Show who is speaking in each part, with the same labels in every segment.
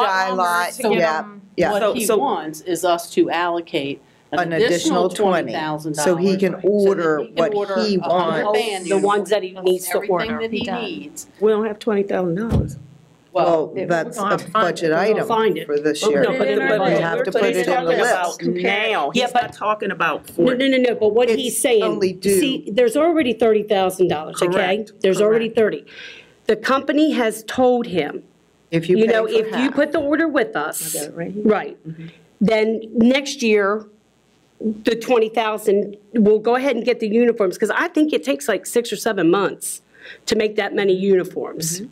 Speaker 1: by
Speaker 2: Palmer
Speaker 1: lot,
Speaker 2: to get
Speaker 1: yeah,
Speaker 2: him
Speaker 1: yeah.
Speaker 3: So-
Speaker 4: What he
Speaker 3: so-
Speaker 4: wants is us to allocate
Speaker 1: an additional twenty.
Speaker 4: $20,000.
Speaker 1: So he can order what he
Speaker 4: a hundred
Speaker 1: wants.
Speaker 4: band
Speaker 5: The ones that he
Speaker 4: uniforms,
Speaker 5: needs to order.
Speaker 4: Everything that
Speaker 2: He
Speaker 4: he
Speaker 2: does.
Speaker 4: needs.
Speaker 5: We don't have twenty thousand dollars.
Speaker 1: Well,
Speaker 5: it-
Speaker 1: that's
Speaker 5: we're gonna
Speaker 1: a
Speaker 5: have to find it.
Speaker 1: budget
Speaker 5: We're gonna
Speaker 1: item
Speaker 5: find it.
Speaker 1: for this
Speaker 3: But
Speaker 1: year.
Speaker 3: no, but
Speaker 2: in
Speaker 3: the-
Speaker 2: our
Speaker 3: but
Speaker 2: budget.
Speaker 3: the-
Speaker 1: You have
Speaker 3: we're
Speaker 1: to put
Speaker 3: talking
Speaker 1: it in the
Speaker 3: about
Speaker 1: list.
Speaker 3: Now,
Speaker 5: Yeah,
Speaker 3: he's
Speaker 5: but-
Speaker 3: not talking about
Speaker 5: No,
Speaker 3: for,
Speaker 5: no, no, no, but what he's
Speaker 1: It's
Speaker 5: saying.
Speaker 1: only due.
Speaker 5: See, there's already thirty thousand dollars, okay?
Speaker 3: Correct,
Speaker 5: There's already thirty. The company has told him,
Speaker 1: If you
Speaker 5: you
Speaker 1: pay
Speaker 5: know,
Speaker 1: for
Speaker 5: if you
Speaker 1: half. Mm-hmm.
Speaker 5: put the order with us. Right. Then next year, the twenty thousand, we'll go ahead and get the uniforms, because I think it takes like six or seven months to make that many uniforms.
Speaker 1: Mm-hmm.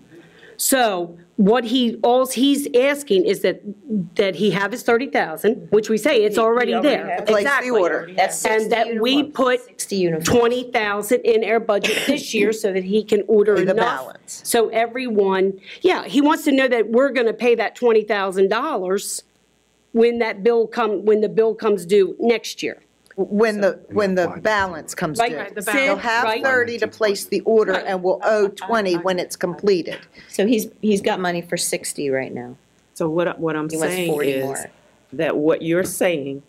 Speaker 5: So what he, alls he's asking is that, that he have his thirty thousand, which we say it's already
Speaker 3: already
Speaker 5: there.
Speaker 3: has.
Speaker 1: It's like
Speaker 5: Exactly.
Speaker 1: pre-order.
Speaker 6: That's
Speaker 5: And
Speaker 6: 60
Speaker 5: that we
Speaker 6: uniforms.
Speaker 5: put
Speaker 6: 60 uniforms.
Speaker 5: 20,000 in our budget this year so that he can order
Speaker 1: Pay
Speaker 5: enough.
Speaker 1: the balance.
Speaker 5: So everyone, yeah, he wants to know that we're going to pay that $20,000 when that bill come, when the bill comes due next year.
Speaker 1: When the, when the balance comes
Speaker 5: Right,
Speaker 1: due.
Speaker 5: right, the
Speaker 1: They'll
Speaker 5: balance.
Speaker 1: have
Speaker 5: Right.
Speaker 1: thirty to place the order and will owe twenty when it's completed.
Speaker 6: So he's, he's got money for 60 right now.
Speaker 3: so what, I- what I'm
Speaker 6: He wants
Speaker 3: saying
Speaker 6: 40
Speaker 3: is
Speaker 6: more.
Speaker 3: that what you're saying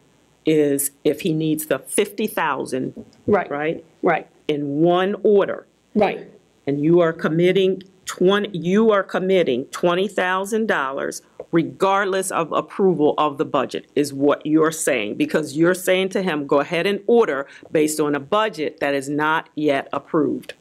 Speaker 3: is if he needs the fifty thousand,
Speaker 5: Right,
Speaker 3: right,
Speaker 5: right,
Speaker 3: in one order,
Speaker 5: right.
Speaker 3: and you are committing twenty, you are committing twenty thousand dollars regardless of approval of the budget, is what you're saying, because you're saying to him, go ahead and order based on a budget that is not yet approved.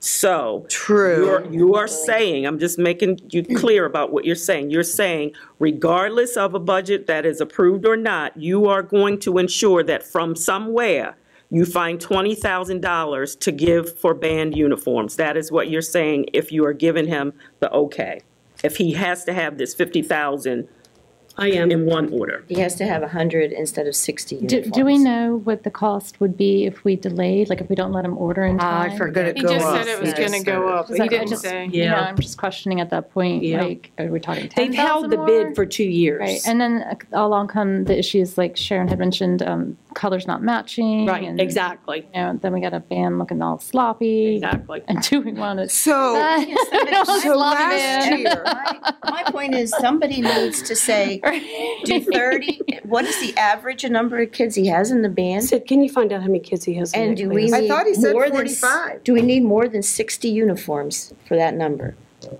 Speaker 3: So.
Speaker 1: True.
Speaker 3: You're, you are saying, I'm just making you clear about what you're saying. You're saying regardless of a budget that is approved or not, you are going to ensure that from somewhere, you find twenty thousand dollars to give for band uniforms. That is what you're saying if you are giving him the okay. If he has to have this fifty thousand
Speaker 5: I
Speaker 3: in
Speaker 5: am.
Speaker 3: one order.
Speaker 6: He has to have 100 instead of 60
Speaker 2: Do,
Speaker 6: uniforms.
Speaker 2: do we know what the cost would be if we delayed, like if we don't let him order in time?
Speaker 1: Ah, I forgot it
Speaker 7: He
Speaker 1: go
Speaker 7: just
Speaker 1: up.
Speaker 7: said it was
Speaker 1: Yeah.
Speaker 7: gonna go up,
Speaker 2: Is
Speaker 7: he
Speaker 2: that
Speaker 7: didn't
Speaker 2: almost-
Speaker 7: say.
Speaker 2: You know,
Speaker 5: Yeah.
Speaker 2: I'm just questioning at that point,
Speaker 5: Yeah.
Speaker 2: like, are we talking ten
Speaker 5: They've
Speaker 2: thousand
Speaker 5: held the bid for two
Speaker 2: Right,
Speaker 5: years.
Speaker 2: and then uh, along come the issues like Sharon had mentioned, um, colors not matching.
Speaker 5: Right,
Speaker 2: and,
Speaker 5: exactly,
Speaker 2: You know, then we got a band looking all sloppy.
Speaker 5: exactly.
Speaker 2: And do we want to?
Speaker 1: So, so last year,
Speaker 6: My my point is, somebody needs to say, do 30, what is the average number of kids he has in the band?
Speaker 5: Sid, can you find out how many kids he has? in
Speaker 6: And
Speaker 5: that
Speaker 6: do
Speaker 5: class?
Speaker 6: we
Speaker 1: I thought he
Speaker 6: need
Speaker 1: said
Speaker 6: more than, s-
Speaker 1: 45.
Speaker 6: do we need more than 60 uniforms for that number?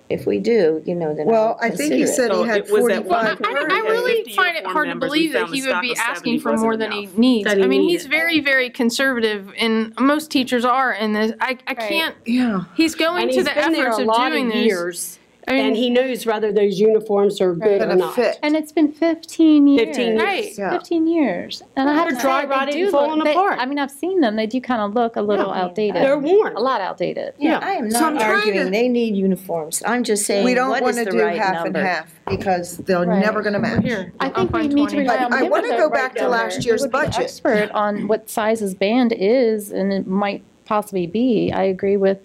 Speaker 6: If we do, you know, then I'll
Speaker 1: well, I think he
Speaker 6: consider it.
Speaker 1: said he
Speaker 3: So
Speaker 1: had
Speaker 3: it was at one
Speaker 1: forty-five.
Speaker 3: point
Speaker 7: I,
Speaker 3: Already
Speaker 7: I
Speaker 3: had
Speaker 7: really
Speaker 3: 50
Speaker 7: find it
Speaker 3: uniform
Speaker 7: hard to
Speaker 3: members. We
Speaker 7: believe that
Speaker 3: found the
Speaker 7: he would
Speaker 3: stock
Speaker 7: be
Speaker 3: of 70
Speaker 7: asking for
Speaker 3: wasn't
Speaker 7: more than he
Speaker 3: enough.
Speaker 7: needs.
Speaker 5: That he
Speaker 7: I mean, he's
Speaker 5: needed.
Speaker 7: very, very conservative, and most teachers are in this. I, I can't,
Speaker 1: Yeah.
Speaker 7: he's going
Speaker 5: And
Speaker 7: to
Speaker 5: he's
Speaker 7: the
Speaker 5: been there
Speaker 7: efforts
Speaker 5: a
Speaker 7: of
Speaker 5: lot
Speaker 7: doing
Speaker 5: of
Speaker 7: this.
Speaker 5: years,
Speaker 7: I
Speaker 5: and
Speaker 7: mean,
Speaker 5: he knows whether those uniforms are good or
Speaker 1: Gonna
Speaker 5: not.
Speaker 1: fit.
Speaker 2: And it's been fifteen years.
Speaker 5: 15 years.
Speaker 7: Right.
Speaker 1: Yeah.
Speaker 2: Fifteen years, and I have to
Speaker 5: They're
Speaker 2: say,
Speaker 5: dry
Speaker 2: they
Speaker 5: rotted
Speaker 2: do
Speaker 5: and
Speaker 2: look.
Speaker 5: falling
Speaker 2: they-
Speaker 5: apart.
Speaker 2: I mean, I've seen them. They do kind of look a little outdated.
Speaker 5: They're worn.
Speaker 2: A lot outdated.
Speaker 5: Yeah.
Speaker 6: I am
Speaker 1: So I'm trying
Speaker 6: not
Speaker 1: to-
Speaker 6: arguing they need uniforms. I'm just saying,
Speaker 1: We don't
Speaker 6: what
Speaker 1: want to
Speaker 6: is the
Speaker 1: do
Speaker 6: right
Speaker 1: half and
Speaker 6: number?
Speaker 1: half because they're
Speaker 2: Right.
Speaker 1: never going to match.
Speaker 7: here.
Speaker 2: I
Speaker 7: I'll
Speaker 2: think we
Speaker 7: find
Speaker 2: need to
Speaker 7: 20.
Speaker 2: rely on
Speaker 1: But I
Speaker 2: him
Speaker 1: wanna
Speaker 2: though,
Speaker 1: go
Speaker 2: right
Speaker 1: back to
Speaker 2: down
Speaker 1: last
Speaker 2: there. He
Speaker 1: year's
Speaker 2: would be the
Speaker 1: budget.
Speaker 2: Expert on what size his band is and it might possibly be. I agree with.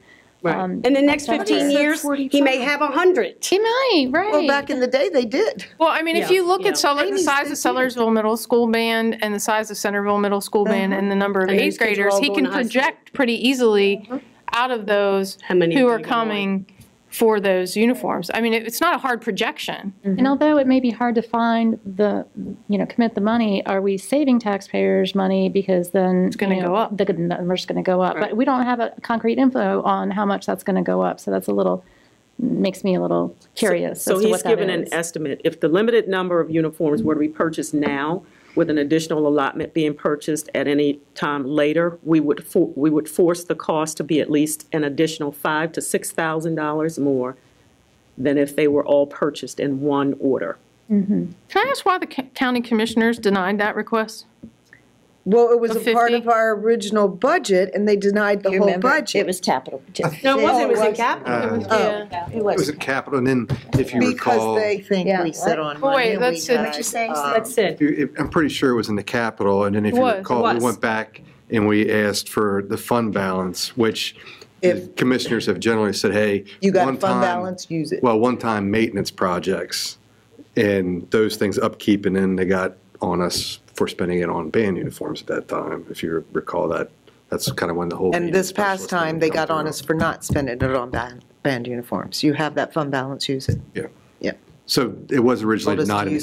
Speaker 2: um,
Speaker 5: In the next
Speaker 2: Dr.
Speaker 5: 15 years, he may have 100.
Speaker 2: He might, right.
Speaker 1: Well, back in the day, they did.
Speaker 7: Well, I mean, if
Speaker 5: Yeah,
Speaker 7: you look
Speaker 5: yeah.
Speaker 7: at Sutherland, the
Speaker 1: Amy's
Speaker 7: size of Sellersville Middle School band and the size of Centerville Middle School band and the number of
Speaker 5: And
Speaker 7: eighth
Speaker 5: these kids are
Speaker 7: graders,
Speaker 5: all
Speaker 7: he
Speaker 5: going to
Speaker 7: can
Speaker 5: high school.
Speaker 7: project pretty easily out of those
Speaker 5: How many
Speaker 7: who
Speaker 5: are
Speaker 7: are
Speaker 5: gonna
Speaker 7: coming for those uniforms. I mean, it- it's not a hard projection.
Speaker 2: And although it may be hard to find the, you know, commit the money, are we saving taxpayers money because then? It's
Speaker 7: gonna go up.
Speaker 2: The good number's going to go up, but we don't have a concrete info on how much that's going to go up. So that's a little, makes me a little curious
Speaker 3: So
Speaker 2: as to
Speaker 3: he's
Speaker 2: what that
Speaker 3: given an
Speaker 2: is.
Speaker 3: estimate, if the limited number of uniforms were to be purchased now, with an additional allotment being purchased at any time later, we would, for- we would force the cost to be at least an additional five to six thousand dollars more than if they were all purchased in one order.
Speaker 7: Can I ask why the co- county commissioners denied that request?
Speaker 1: Well, it was
Speaker 7: The
Speaker 1: a part
Speaker 7: 50?
Speaker 1: of our original budget and they denied the
Speaker 6: You
Speaker 1: whole
Speaker 6: remember? It
Speaker 1: budget.
Speaker 6: was capital.
Speaker 5: No, it wasn't, it was
Speaker 1: Oh,
Speaker 5: in
Speaker 1: it
Speaker 5: capital.
Speaker 1: Oh,
Speaker 6: It
Speaker 8: It was
Speaker 6: was.
Speaker 8: at Capital, and then if you
Speaker 1: because
Speaker 8: recall,
Speaker 1: they
Speaker 8: if
Speaker 1: think
Speaker 6: Yeah.
Speaker 1: we sit on
Speaker 7: Well,
Speaker 1: money
Speaker 7: wait,
Speaker 1: and we
Speaker 7: that's- that's
Speaker 1: had,
Speaker 7: just-
Speaker 1: um,
Speaker 5: That's it.
Speaker 8: you- if- I'm pretty sure it was in the Capital, and then if
Speaker 7: It
Speaker 8: you
Speaker 7: was, it
Speaker 8: recall, we
Speaker 5: was.
Speaker 8: went back and we asked for the fund balance, which the
Speaker 1: If-
Speaker 8: commissioners have generally said, hey.
Speaker 1: You got a
Speaker 8: one
Speaker 1: fund
Speaker 8: time-
Speaker 1: balance, use it.
Speaker 8: Well, one-time maintenance projects and those things upkeep, and then they got on us for spending it on band uniforms at that time, if you recall that. That's kind of when the whole.
Speaker 1: And
Speaker 8: maintenance
Speaker 1: this past
Speaker 8: specialist thing
Speaker 1: time, they
Speaker 8: come
Speaker 1: got on
Speaker 8: through.
Speaker 1: us for not spending it on band, band uniforms. You have that fund balance, use it.
Speaker 8: Yeah.
Speaker 1: Yeah.
Speaker 8: So it was originally
Speaker 1: Told us to
Speaker 8: not an
Speaker 1: use